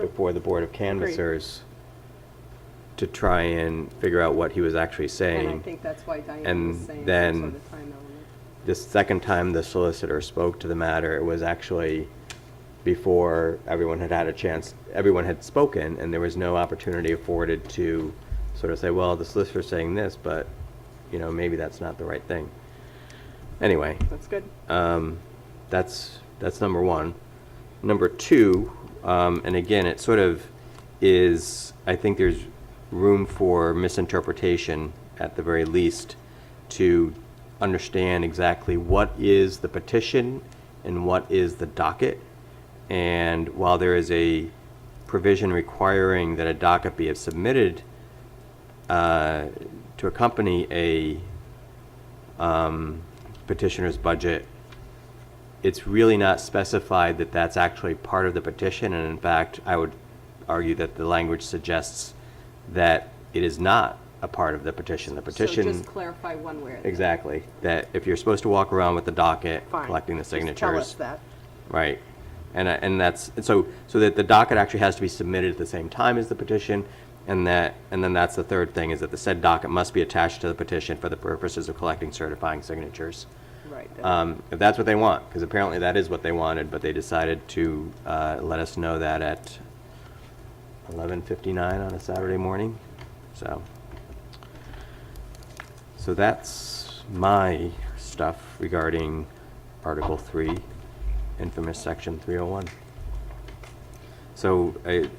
before the Board of Canvassers to try and figure out what he was actually saying. And I think that's why Diane And was saying then- some sort of time element. The second time the solicitor spoke to the matter, it was actually before everyone had had a chance, everyone had spoken, and there was no opportunity afforded to sort of say, well, the solicitor's saying this, but, you know, maybe that's not the right thing. Anyway, That's good. um, that's, that's number one. Number two, um, and again, it sort of is, I think there's room for misinterpretation at the very least to understand exactly what is the petition and what is the docket. And while there is a provision requiring that a docket be submitted uh, to accompany a um, petitioner's budget, it's really not specified that that's actually part of the petition, and in fact, I would argue that the language suggests that it is not a part of the petition. The petition. So just clarify one way or the other. Exactly, that if you're supposed to walk around with the docket, Fine. collecting the signatures. Just tell us that. Right. And, I- and that's, and so, so that the docket actually has to be submitted at the same time as the petition, and that, and then that's the third thing, is that the said docket must be attached to the petition for the purposes of collecting certifying signatures. Right. that- Um, If that's what they want, because apparently that is what they wanted, but they decided to uh, let us know that at 11:59 on a Saturday morning, so. So that's my stuff regarding Article 3, infamous Section 301. So, I-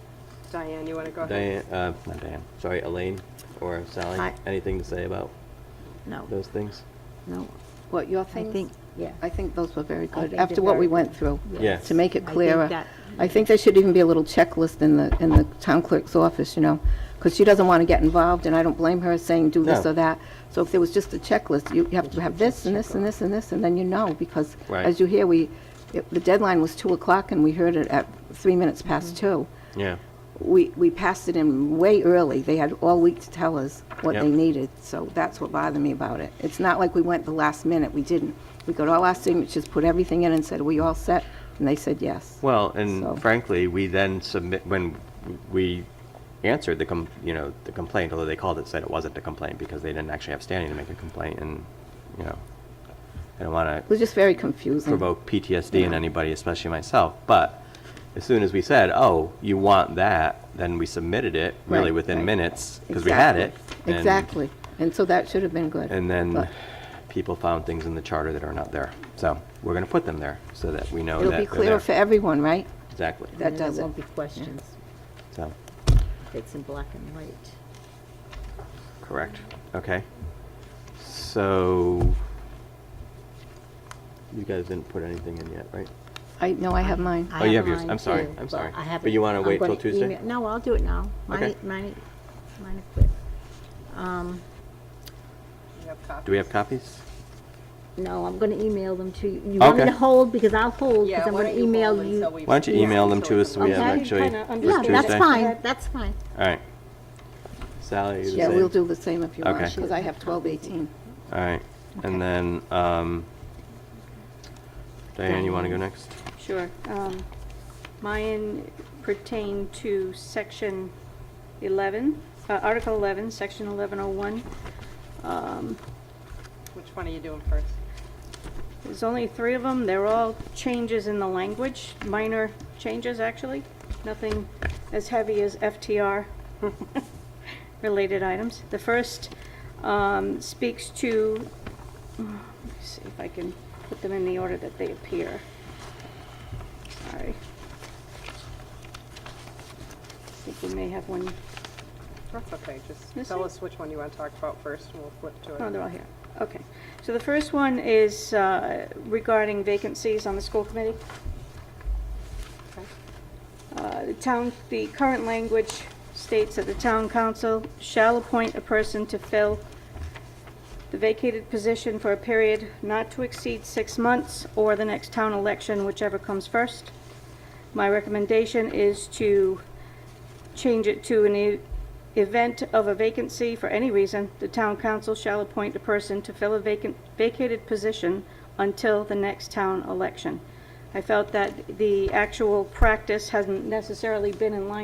Diane, you want to go ahead? Diane, uh, not Diane, sorry, Elaine or Sally, Hi. anything to say about No, those things? No, what, your I things? think, Yeah. I think those were very good, they after did what very we good. went through. Yeah. To make I it think clearer. that- I think there should even be a little checklist in the, in the town clerk's office, you know, because she doesn't want to get involved, and I don't blame her saying do this No. or that. So if there was just a checklist, you you have to have this and this and this and this, and then you know, because Right. as you hear, we, it- the deadline was 2 o'clock, and we heard it at 3 minutes Mm-hmm. past 2. Yeah. We, we passed it in way early. They had all week to tell us what Yep. they needed, so that's what bothered me about it. It's not like we went the last minute, we didn't. We got all our signatures, put everything in and said, are we all set? And they said yes. Well, So- and frankly, we then submit, when we answered the, com- you know, the complaint, although they called it, said it wasn't a complaint because they didn't actually have standing to make a complaint and, you know, I don't want It to was just very confusing. provoke PTSD in anybody, especially myself. But as soon as we said, oh, you want that, then we submitted it really Right, within right. minutes because we had it. Exactly. and- Exactly. And so that should have been good. And then But people found things in the charter that are not there. So we're going to put them there so that we know oh, that It'll they're be clearer for there. everyone, right? Exactly. That And then does it. there won't be questions. So, It's in black and white. Correct. Okay. So, you guys didn't put anything in yet, right? I, no, I have mine. I Oh, you have yours. mine, I'm sorry. too, I'm sorry. I have But it. you wanna I'm wait till gonna Tuesday? email- No, I'll do it now. Mine, Okay. mine, mine are quick. Um, You have copies? Do we have copies? no, I'm gonna email them to you. You want me Okay. to hold, because I'll hold, Yeah, because I'm why gonna don't you email hold you. until we- Why don't you Yeah, email them until to we us so come we back. have Okay. actually Kinda for Yeah, Tuesday? that's fine, that's fine. All right. Sally, you the Yeah, we'll same? do the same if you want, Okay. because I have 1218. All right. Okay. And then, um, Diane, you want to go next? Sure. Um, Mine pertain to section 11, uh, Article 11, section 1101. Um, Which one are you doing first? There's only three of them. They're all changes in the language, minor changes, actually. Nothing as heavy as FTR related items. The first um, speaks to, let me see if I can put them in the order that they appear. Sorry. I think we may have one, That's okay, just This tell one? us which one you want to talk about first, and we'll flip to it. oh, they're all here. Okay. So the first one is uh, regarding vacancies on the school committee. Okay. Uh, The town, the current language states that the town council shall appoint a person to fill the vacated position for a period not to exceed six months or the next town election, whichever comes first. My recommendation is to change it to an e- event of a vacancy for any reason, the town council shall appoint a person to fill a vacant, vacated position until the next town election. I felt that the actual practice hasn't necessarily been in line